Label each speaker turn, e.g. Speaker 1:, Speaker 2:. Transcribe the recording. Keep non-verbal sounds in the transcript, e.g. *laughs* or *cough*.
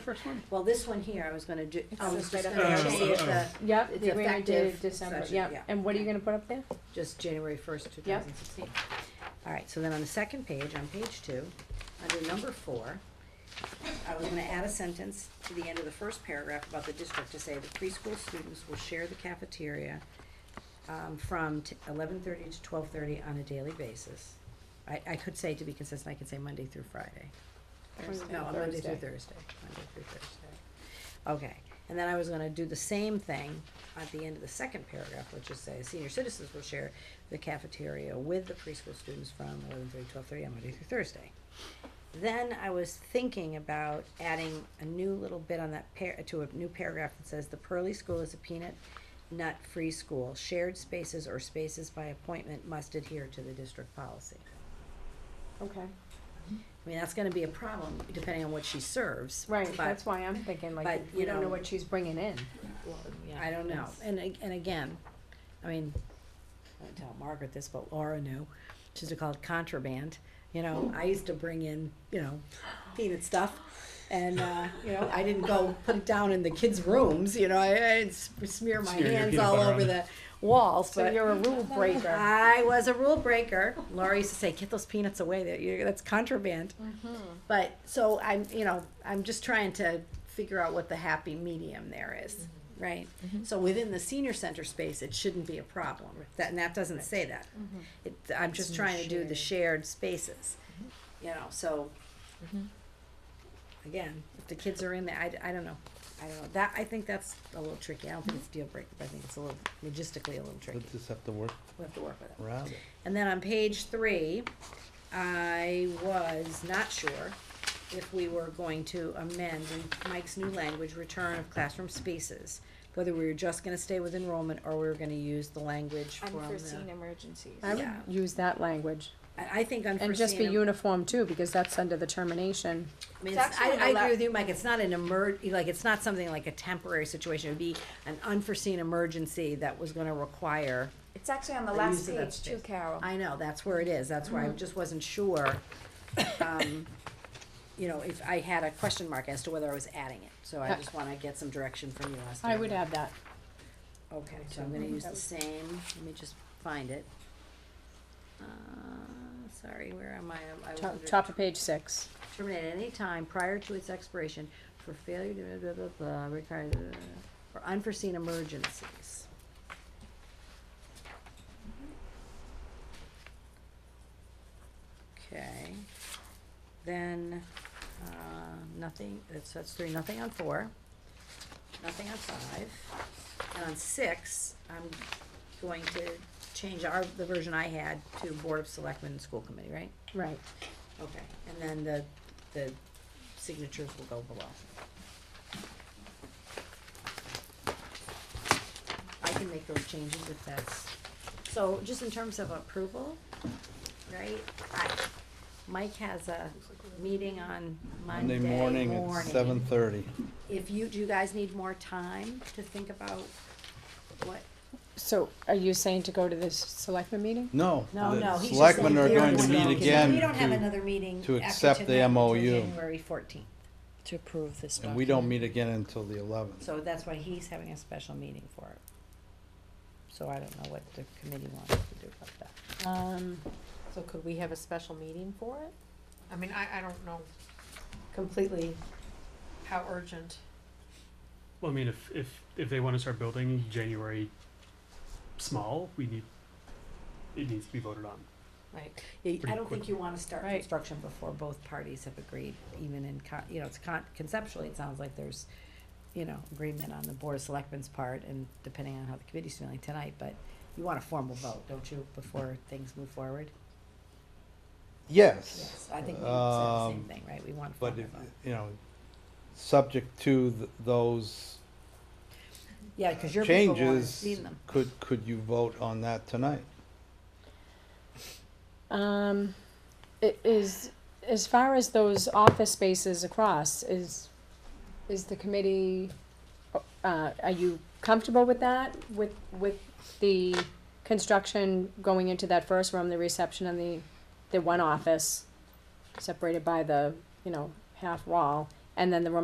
Speaker 1: First one?
Speaker 2: Well, this one here, I was gonna do, I
Speaker 3: It's
Speaker 2: was
Speaker 3: just
Speaker 2: just
Speaker 3: right
Speaker 2: gonna
Speaker 1: up there.
Speaker 2: see if the,
Speaker 1: oh.
Speaker 3: Yep,
Speaker 2: It's
Speaker 3: the agreement dated
Speaker 2: effective
Speaker 3: December,
Speaker 2: session, yeah.
Speaker 3: yep, and what are you gonna put up there?
Speaker 2: just January first, two
Speaker 3: Yep.
Speaker 2: thousand sixteen. Alright, so then on the second page, on page two, under number four, I was gonna add a sentence to the end of the first paragraph about the district to say the preschool students will share the cafeteria um, from eleven thirty to twelve thirty on a daily basis. I, I could say, to be consistent, I could say Monday through Friday.
Speaker 3: Thursday,
Speaker 2: No, Monday through
Speaker 3: Thursday.
Speaker 2: Thursday, Monday through Thursday. Okay, and then I was gonna do the same thing at the end of the second paragraph, which is say, senior citizens will share the cafeteria with the preschool students from eleven thirty, twelve thirty on Monday through Thursday. Then I was thinking about adding a new little bit on that par, to a new paragraph that says, the Pearly School is a peanut nut-free school. Shared spaces or spaces by appointment must adhere to the district policy.
Speaker 3: Okay,
Speaker 2: I mean, that's gonna be a problem depending on what she serves.
Speaker 3: right,
Speaker 2: but-
Speaker 3: that's why I'm thinking like,
Speaker 2: but,
Speaker 3: we
Speaker 2: you
Speaker 3: don't know
Speaker 2: know-
Speaker 3: what she's bringing in.
Speaker 2: I don't know, and, ag- and again, I mean, I didn't tell Margaret this, but Laura knew, she used to call it contraband, you know, I used to bring in, you know, peanut stuff, and, uh, you know, I didn't go put it down in the kids' rooms, you know, I, I didn't s- smear my
Speaker 1: Smear your
Speaker 2: hands
Speaker 1: peanut
Speaker 2: all
Speaker 1: butter
Speaker 2: over
Speaker 1: on
Speaker 2: the walls,
Speaker 3: So
Speaker 2: but
Speaker 3: you're a rule
Speaker 2: *laughs*
Speaker 3: breaker.
Speaker 2: I was a rule breaker, Laura used to say, get those peanuts away, that, you, that's contraband. But, so I'm, you know, I'm just trying to figure out what the happy medium there is, right? So within the senior center space, it shouldn't be a problem, that, and that doesn't say that. It, I'm just trying to do the shared spaces, you know, so. Again, if the kids are in there, I, I don't know, I don't know, that, I think that's a little tricky, I don't think it's deal breaker, but I think it's a little, logistically a little tricky,
Speaker 4: We'll just have to work
Speaker 2: we have to work with it.
Speaker 4: around it.
Speaker 2: And then on page three, I was not sure if we were going to amend in Mike's new language, return of classroom spaces. Whether we were just gonna stay with enrollment or we were gonna use the language from
Speaker 5: unforeseen
Speaker 2: the.
Speaker 5: emergencies.
Speaker 3: I would
Speaker 2: Yeah.
Speaker 3: use that language,
Speaker 2: I, I think unforeseen.
Speaker 3: and just be uniform too, because that's under the termination.
Speaker 2: I mean,
Speaker 5: It's
Speaker 2: it's- I,
Speaker 5: actually
Speaker 2: I
Speaker 5: an ele-
Speaker 2: agree with you, Mike, it's not an emer, like, it's not something like a temporary situation, it'd be an unforeseen emergency that was gonna require.
Speaker 5: It's actually on the
Speaker 2: the
Speaker 5: last
Speaker 2: use of that
Speaker 5: page too,
Speaker 2: space.
Speaker 5: Carol.
Speaker 2: I know, that's where it is, that's where I
Speaker 3: Mm-hmm.
Speaker 2: just wasn't sure, um, you know, if I had a question mark as to whether I was adding it, so I
Speaker 3: Yeah.
Speaker 2: just wanna get some direction from you as to.
Speaker 3: I would
Speaker 2: whether-
Speaker 3: add Mm-hmm. that.
Speaker 2: Okay, so I'm gonna use the same, let me just find it. Uh, sorry, where am I? I- I was
Speaker 3: Top,
Speaker 2: under-
Speaker 3: top of page six.
Speaker 2: terminate at any time prior to its expiration for failure to blah, blah, blah, blah, require, blah, blah, blah, for unforeseen emergencies. Okay, then, uh, nothing, that's, that's three, nothing on four, nothing on five. And on six, I'm going to change our, the version I had to Board of Selectmen and School Committee, right?
Speaker 3: Right.
Speaker 2: Okay, and then the, the signatures will go below. I can make those changes if that's, so just in terms of approval, right? I, Mike has a meeting on Monday
Speaker 4: Monday
Speaker 2: morning.
Speaker 4: morning at seven thirty.
Speaker 2: If you, do you guys need more time to think about what,
Speaker 3: So are you saying to go to this selectmen meeting?
Speaker 4: No,
Speaker 2: no, no,
Speaker 4: the
Speaker 2: he's just
Speaker 4: selectmen
Speaker 2: saying
Speaker 4: are
Speaker 2: they're
Speaker 4: going to
Speaker 2: gonna
Speaker 4: meet
Speaker 2: go. We don't have
Speaker 4: again
Speaker 2: another meeting
Speaker 4: to
Speaker 2: after
Speaker 4: accept the
Speaker 2: tonight until
Speaker 4: MOU.
Speaker 2: January fourteenth.
Speaker 6: to approve this
Speaker 4: to, and
Speaker 6: document.
Speaker 4: we don't meet again until the eleventh.
Speaker 2: So that's why he's having a special meeting for it. So I don't know what the committee wants to do about that.
Speaker 3: Um,
Speaker 6: So could we have a special meeting for it? I mean, I, I don't know
Speaker 2: Completely.
Speaker 6: how urgent.
Speaker 1: Well, I mean, if, if, if they wanna start building January small, we need, it needs to be voted on.
Speaker 6: Right.
Speaker 2: I
Speaker 1: Pretty
Speaker 2: don't think
Speaker 1: quick.
Speaker 2: you wanna start
Speaker 6: Right.
Speaker 2: construction before both parties have agreed, even in con, you know, it's con, conceptually, it sounds like there's, you know, agreement on the board of selectmen's part and depending on how the committee's feeling tonight, but you want a formal vote, don't you, before things move forward?
Speaker 4: Yes,
Speaker 2: Yes, I think we said the same
Speaker 4: Um,
Speaker 2: thing, right? We want a
Speaker 4: but
Speaker 2: formal
Speaker 4: if,
Speaker 2: vote.
Speaker 4: you know, subject to th- those
Speaker 2: Yeah, cause your people wanna
Speaker 4: changes,
Speaker 2: see them.
Speaker 4: could, could you vote on that tonight?
Speaker 3: Um, it is, as far as those office spaces across, is, is the committee, uh, are you comfortable with that? With, with the construction going into that first room, the reception and the, the one office separated by the, you know, half wall, and then the room